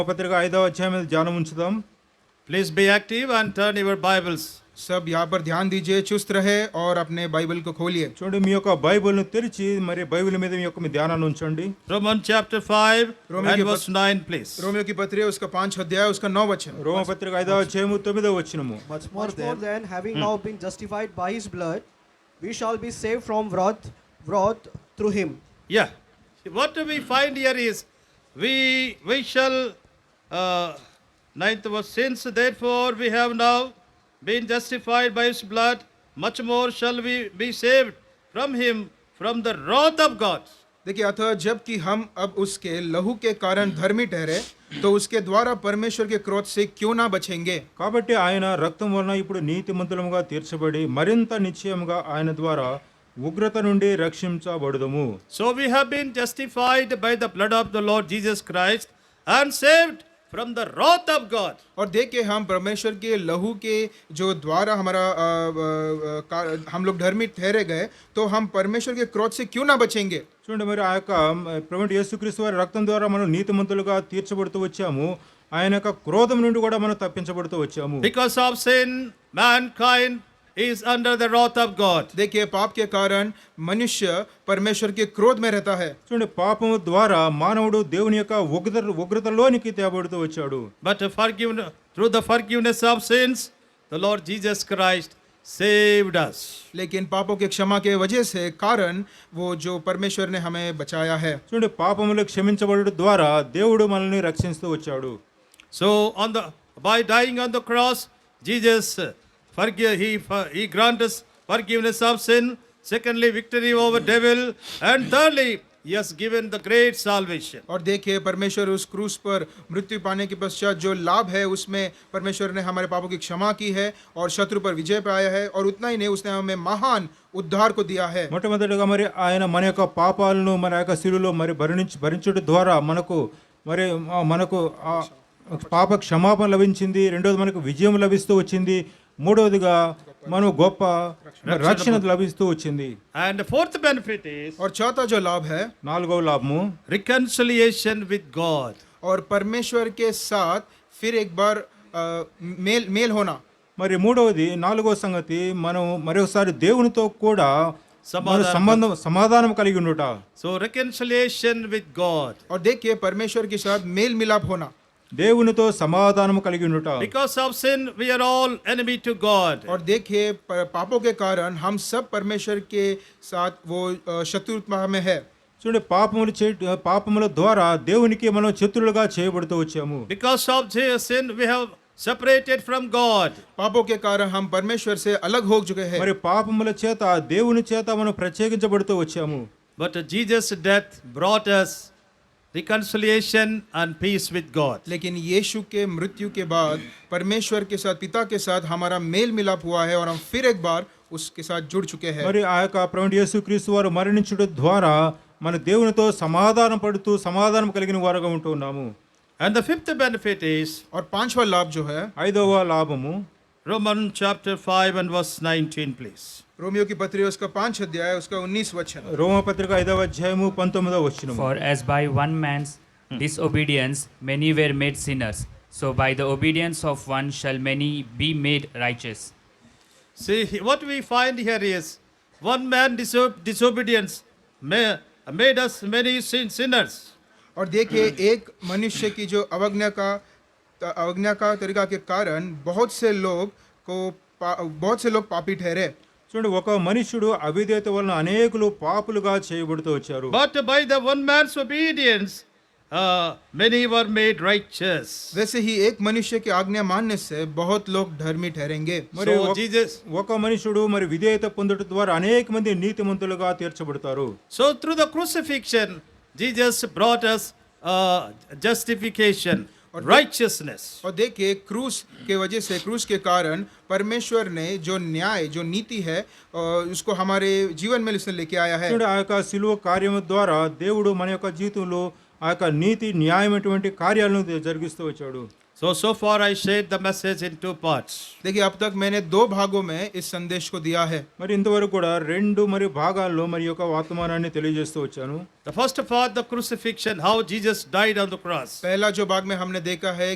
पत्रिका ఐదవ अध्याय में ध्यान ఉంచుదాం Please be active and turn your Bibles. सब यहाँ पर ध्यान दीजिए चुस्त रहे और अपने बाइबल को खोलिए చూడండి మీ యొక్క బైబిల్ను తెరిచి మరి బైబిల్ మీద మీ యొక్క మీ ధ్యానాన్ని ఉంచండి Romans chapter 5 Romans and ke verse 9, please. रोमियो की पत्री है, उसका पांच अध्याय उसका नौ वचन రోమపత్రిక ఐదవ అధ్యాయము తొమ్మిదవ వచ్చినము Much more Hmm. than, having now been justified by his blood, we shall be saved from wrath, wrath through him. Yeah. What do we find here is we we shall uh, ninth verse since therefore we have now been justified by his blood, much more shall we be saved from him from the wrath of God. देखिए अतः जबकि हम अब उसके लहू के कारण धर्मी ठहरे तो उसके द्वारा परमेश्वर के क्रोध से क्यों ना बचेंगे కాబట్టి ఆయన రక్తం వలన ఇప్పుడు నీతిమంతులముగా తీర్చబడి మరింత నిశ్చయముగా ఆయన ద్వారా ఉగ్రత నుండి రక్షించబడుదము So we have been justified by the blood of the Lord Jesus Christ and saved from the wrath of God. और देखिए हम परमेश्वर के लहू के जो द्वारा हमारा अ, अ, अ, का- हम लोग धर्मी ठहरे गए तो हम परमेश्वर के क्रोध से क्यों ना बचेंगे చూడండి మరి ఆ యొక్క ప్రభుత్వ యేసుక్రీస్తు వారి రక్తం ద్వారా మనం నీతిమంతులుగా తీర్చబడుతూ వచ్చాము ఆయన యొక్క క్రోధం నుండి కూడా మనం తప్పించబడుతూ వచ్చాము Because of sin, mankind is under the wrath of God. देखिए पाप के कारण मनुष्य परमेश्वर के क्रोध में रहता है చూడండి పాపము ద్వారా మానవుడు దేవుని యొక్క ఉగ్రత ఉగ్రతలోనికి తేబడుతూ వచ్చాడు But the forgiven- through the forgiveness of sins, the Lord Jesus Christ saved us. लेकिन पापों के क्षमा के वजह से कारण वो जो परमेश्वर ने हमें बचाया है చూడండి పాపములు క్షమించబడడం ద్వారా దేవుడు మనల్ని రక్షిస్తూ వచ్చాడు So on the by dying on the cross, Jesus uh, forgive he for- he grants us forgiveness of sin. Secondly, victory over devil, and thirdly, he has given the great salvation. और देखिए परमेश्वर उस क्रूस पर मृत्यु पाने के पश्चात जो लाभ है उसमें परमेश्वर ने हमारे पापों की क्षमा की है और शत्रु पर विजय पाया है और उतना ही नहीं उसने हमें महान उद्धार को दिया है మొట్టమొదటిగా మరి ఆయన మన యొక్క పాపాలను మన యొక్క శిలులో మరి భరించి భరించడం ద్వారా మనకు మరి ఆ మనకు ఆ పాప క్షమాపణ లభించింది రెండోది మనకు విజయం లభిస్తూ వచ్చింది మూడవదిగా మనం గొప్ప రక్షణ లభిస్తూ వచ్చింది And the fourth benefit is और चौथा जो लाभ है నాలుగవ లాభము reconciliation with God. और परमेश्वर के साथ फिर एक बार अ, मेल मेल होना మరి మూడవది నాలుగవ సంగతి మనం మరొకసారి దేవునితో కూడా మన సంబంధం సమాధానం కలిగి ఉండుట So reconciliation with God. और देखिए परमेश्वर के साथ मेल मिलाप होना దేవునితో సమాధానం కలిగి ఉండుట Because of sin, we are all enemy to God. और देखिए प- पापों के कारण हम सब परमेश्वर के साथ वो अ, शत्रुता में है చూడండి పాపములు చే పాపముల ద్వారా దేవునికి మనం చిత్రులుగా చేయబడుతూ వచ్చాము Because of their sin, we have separated from God. पापों के कारण हम परमेश्वर से अलग हो चुके हैं మరి పాపముల చేత దేవుని చేత మనం ప్రత్యేకించబడుతూ వచ్చాము But Jesus' death brought us reconciliation and peace with God. लेकिन यीशु के मृत्यु के बाद परमेश्वर के साथ पिता के साथ हमारा मेल मिलाप हुआ है और हम फिर एक बार उसके साथ जुड़ चुके हैं మరి ఆ యొక్క ప్రభుడు యేసుక్రీస్తు వారు మరణించడం ద్వారా మన దేవునితో సమాధానం పడుతూ సమాధానం కలిగిన వారుగా ఉంటున్నాము And the fifth benefit is और पांचवा लाभ जो है ఐదవ లాభము Romans chapter 5 and verse 19, please. रोमियो की पत्री उसका पांच अध्याय उसका उन्नीस वचन రోమపత్రిక ఐదవ అధ్యాయము పంతొమ్మిదవ వచ్చినము For as by one man's disobedience many were made sinners, so by the obedience of one shall many be made righteous. See, he- what we find here is one man diso- disobedience ma- made us many sin- sinners. और देखिए एक मनुष्य की जो अवज्ञा का अवज्ञा का तरीका के कारण बहुत से लोग को पा- बहुत से लोग पापी ठहरे చూడండి ఒక మనుష్యుడు అవిధేయత వలన అనేకులు పాపులుగా చేయబడుతూ వచ్చారు But by the one man's obedience, uh, many were made righteous. वैसे ही एक मनुष्य की आज्ञा मानने से बहुत लोग धर्मी ठहरेंगे మరి So ఒక- Jesus, ఒక మనుషుడు మరి విధేయత పొందడం ద్వారా అనేక మంది నీతిమంతులుగా తీర్చబడతారు so through the crucifixion, Jesus brought us uh, justification, righteousness. और देखिए क्रूस के वजह से क्रूस के कारण परमेश्वर ने जो न्याय जो नीति है अ, उसको हमारे जीवन में उसने लेके आया है చూడండి ఆ యొక్క సిలువ కార్యము ద్వారా దేవుడు మన యొక్క జీవితంలో ఆ యొక్క నీతి న్యాయం అటువంటి కార్యాలను జరిగిస్తూ వచ్చాడు So, so far I shared the message in two parts. देखिए अब तक मैंने दो भागों में इस संदेश को दिया है మరి ఇంతవరకు కూడా రెండు మరి భాగాల్లో మరి యొక్క వర్తమానాన్ని తెలియజేస్తూ వచ్చాను The first part, the crucifixion, how Jesus died on the cross. पहला जो भाग में हमने देखा है